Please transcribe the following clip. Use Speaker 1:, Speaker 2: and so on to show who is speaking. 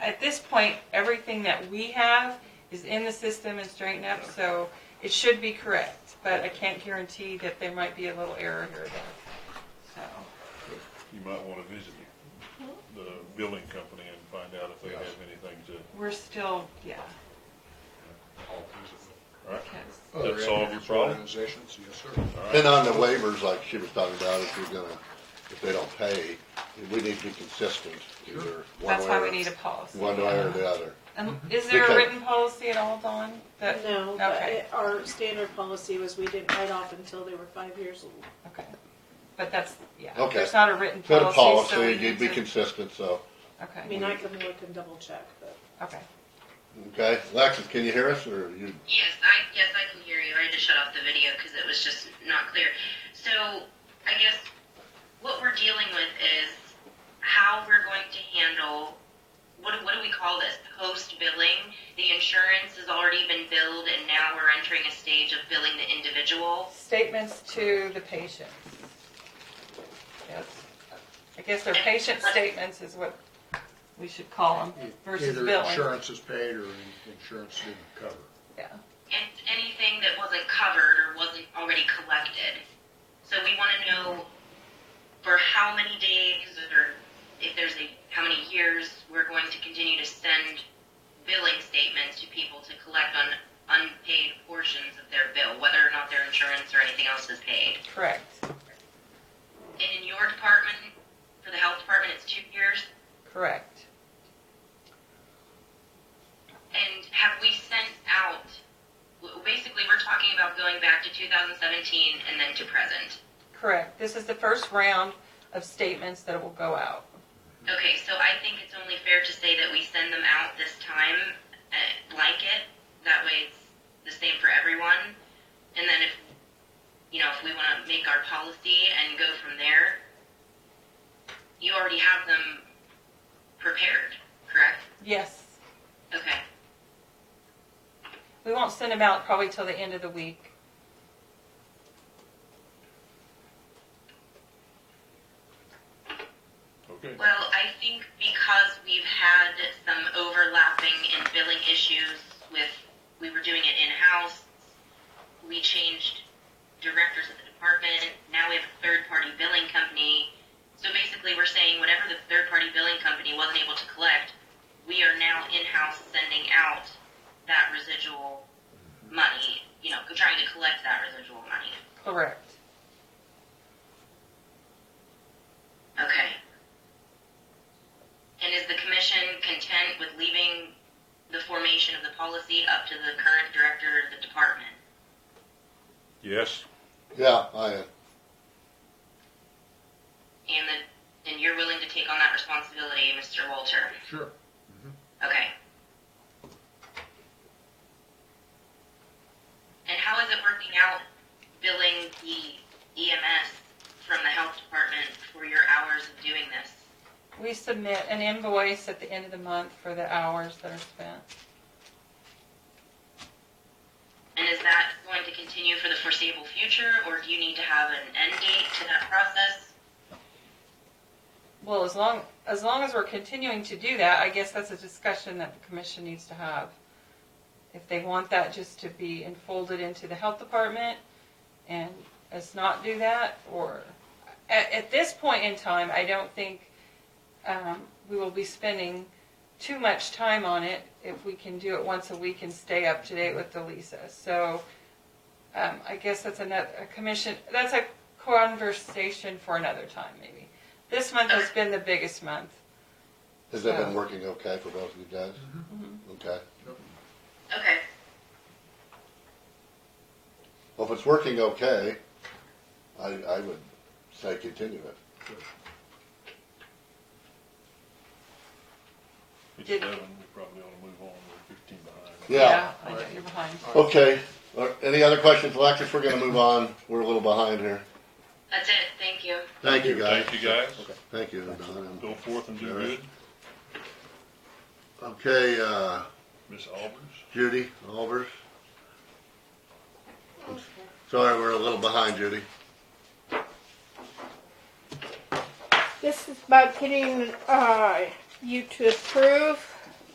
Speaker 1: at this point, everything that we have is in the system and straightened up, so it should be correct. But I can't guarantee that there might be a little error here or there. So,
Speaker 2: You might wanna visit the building company and find out if they have anything to,
Speaker 1: we're still, yeah,
Speaker 2: alright?
Speaker 1: yes.
Speaker 3: Oh,
Speaker 2: That
Speaker 4: Other
Speaker 2: solve your
Speaker 4: ambulance
Speaker 2: problem?
Speaker 4: Organizations, yes, sir.
Speaker 3: And on the waivers, like she was talking about, if you're gonna, if they don't pay, we need to be consistent either one
Speaker 1: That's why
Speaker 3: way
Speaker 1: we
Speaker 3: or,
Speaker 1: need a policy.
Speaker 3: one way or the other.
Speaker 1: And is there a
Speaker 3: Because-
Speaker 1: written policy at all, Dawn? that-
Speaker 5: No, but
Speaker 1: Okay,
Speaker 5: it- our standard policy was we didn't write off until they were five years old.
Speaker 1: okay. But that's, yeah,
Speaker 3: Okay.
Speaker 1: there's not a written
Speaker 3: Set a
Speaker 1: policy, so we
Speaker 3: policy,
Speaker 1: need
Speaker 3: you'd be
Speaker 1: to.
Speaker 3: consistent, so,
Speaker 5: I
Speaker 1: Okay,
Speaker 5: mean, I can look and double check, but
Speaker 1: okay.
Speaker 3: okay? Alexis, can you hear us, or you,
Speaker 6: Yes, I yes I can hear you. I had to shut off the video because it was just not clear. So I guess what we're dealing with is how we're going to handle what do- what do we call this post billing? The insurance has already been billed, and now we're entering a stage of billing the individual.
Speaker 1: Statements to the patient. Yes, I guess they're patient statements is what we should call them versus
Speaker 4: Either
Speaker 1: billing.
Speaker 4: insurance is paid or in- insurance didn't cover.
Speaker 1: Yeah,
Speaker 6: and anything that wasn't covered or wasn't already collected. So we want to know for how many days or if there's a, how many years we're going to continue to send billing statements to people to collect on unpaid portions of their bill, whether or not their insurance or anything else is paid.
Speaker 1: correct,
Speaker 6: And in your department, for the health department, it's two years.
Speaker 1: correct.
Speaker 6: And have we sent out, w- basically, we're talking about going back to 2017 and then to present.
Speaker 1: Correct. This is the first round of statements that will go out.
Speaker 6: Okay, so I think it's only fair to say that we send them out this time, uh, blanket. That way it's the same for everyone. And then if, you know, if we want to make our policy and go from there, you already have them prepared, correct?
Speaker 1: Yes,
Speaker 6: Okay.
Speaker 1: we won't send them out probably till the end of the week.
Speaker 2: Okay,
Speaker 6: Well, I think because we've had some overlapping and billing issues with, we were doing it in-house, we changed directors of the department, now we have a third-party billing company. So basically, we're saying whatever the third-party billing company wasn't able to collect, we are now in-house sending out that residual money, you know, trying to collect that residual money.
Speaker 1: Correct.
Speaker 6: Okay. And is the commission content with leaving the formation of the policy up to the current director of the department?
Speaker 2: yes,
Speaker 3: yeah, I, am.
Speaker 6: And the, and you're willing to take on that responsibility, Mr. Walter?
Speaker 4: Sure.
Speaker 6: Okay. And how is it working out billing the EMS from the health department for your hours of doing this?
Speaker 1: We submit an invoice at the end of the month for the hours that are spent.
Speaker 6: And is that going to continue for the foreseeable future, or do you need to have an end date to that process?
Speaker 1: Well, as long, as long as we're continuing to do that, I guess that's a discussion that the commission needs to have. If they want that just to be enfolded into the health department and us not do that, or, at, at this point in time, I don't think, um, we will be spending too much time on it if we can do it once a week and stay up to date with the Lisa. So, um, I guess that's another, a commission, that's a conversation for another time, maybe. This month has been the biggest month.
Speaker 3: has that
Speaker 1: So-
Speaker 3: been working okay for both of you guys?
Speaker 1: Mm-hmm.
Speaker 3: Okay.
Speaker 6: Okay.
Speaker 3: Well, if it's working okay, I, I would say continue it.
Speaker 2: it's
Speaker 1: Did-
Speaker 2: eleven, we probably ought to move on, we're fifteen behind.
Speaker 3: Yeah.
Speaker 1: I know, you're behind.
Speaker 3: Okay, Uh, any other questions, Alexis? We're gonna move on. We're a little behind here.
Speaker 6: That's it. Thank you.
Speaker 3: Thank you, guys.
Speaker 2: Thank you, guys.
Speaker 3: Thank you, Don.
Speaker 2: Go forth and do
Speaker 3: All right.
Speaker 2: good,
Speaker 3: Okay, uh,
Speaker 2: Miss Albers.
Speaker 3: Judy, Albers. Sorry, we're a little behind, Judy.
Speaker 7: This is about getting uh, you to approve